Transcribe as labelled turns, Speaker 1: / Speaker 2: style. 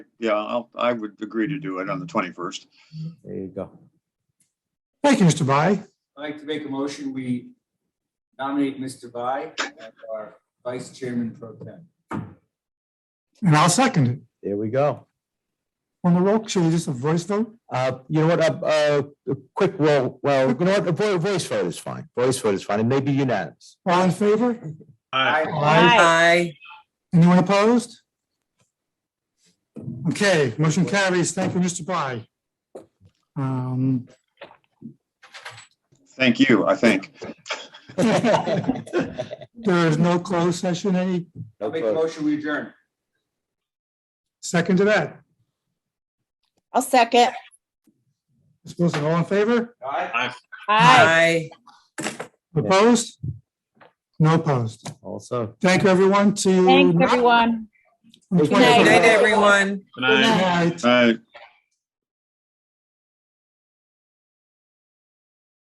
Speaker 1: Yeah, I'll, I would agree to do it on the twenty-first.
Speaker 2: There you go.
Speaker 3: Thank you, Mr. Bai.
Speaker 4: I'd like to make a motion, we nominate Mr. Bai as our vice chairman pro tem.
Speaker 3: And I'll second it.
Speaker 2: There we go.
Speaker 3: On the roll, should we just a voice vote?
Speaker 2: Uh, you know what, uh, uh, quick roll, well, you know what, a vo- voice vote is fine. Voice vote is fine. It may be unanimous.
Speaker 3: All in favor?
Speaker 4: I
Speaker 5: Aye.
Speaker 3: Anyone opposed? Okay, motion carries. Thank you, Mr. Bai. Um,
Speaker 1: Thank you, I think.
Speaker 3: There is no closed session. Any
Speaker 2: No
Speaker 4: make a
Speaker 2: vote.
Speaker 4: motion, we adjourn.
Speaker 3: second to that?
Speaker 5: I'll second.
Speaker 3: Ms. Wilson, all in favor?
Speaker 4: Aye.
Speaker 5: Aye.
Speaker 3: Opposed? No opposed.
Speaker 2: Also.
Speaker 3: Thank you, everyone. See you.
Speaker 5: Thanks,
Speaker 3: not-
Speaker 5: everyone.
Speaker 3: on the
Speaker 2: Good night.
Speaker 5: Good night,
Speaker 3: 21st.
Speaker 5: everyone.
Speaker 3: Good night.
Speaker 1: All right.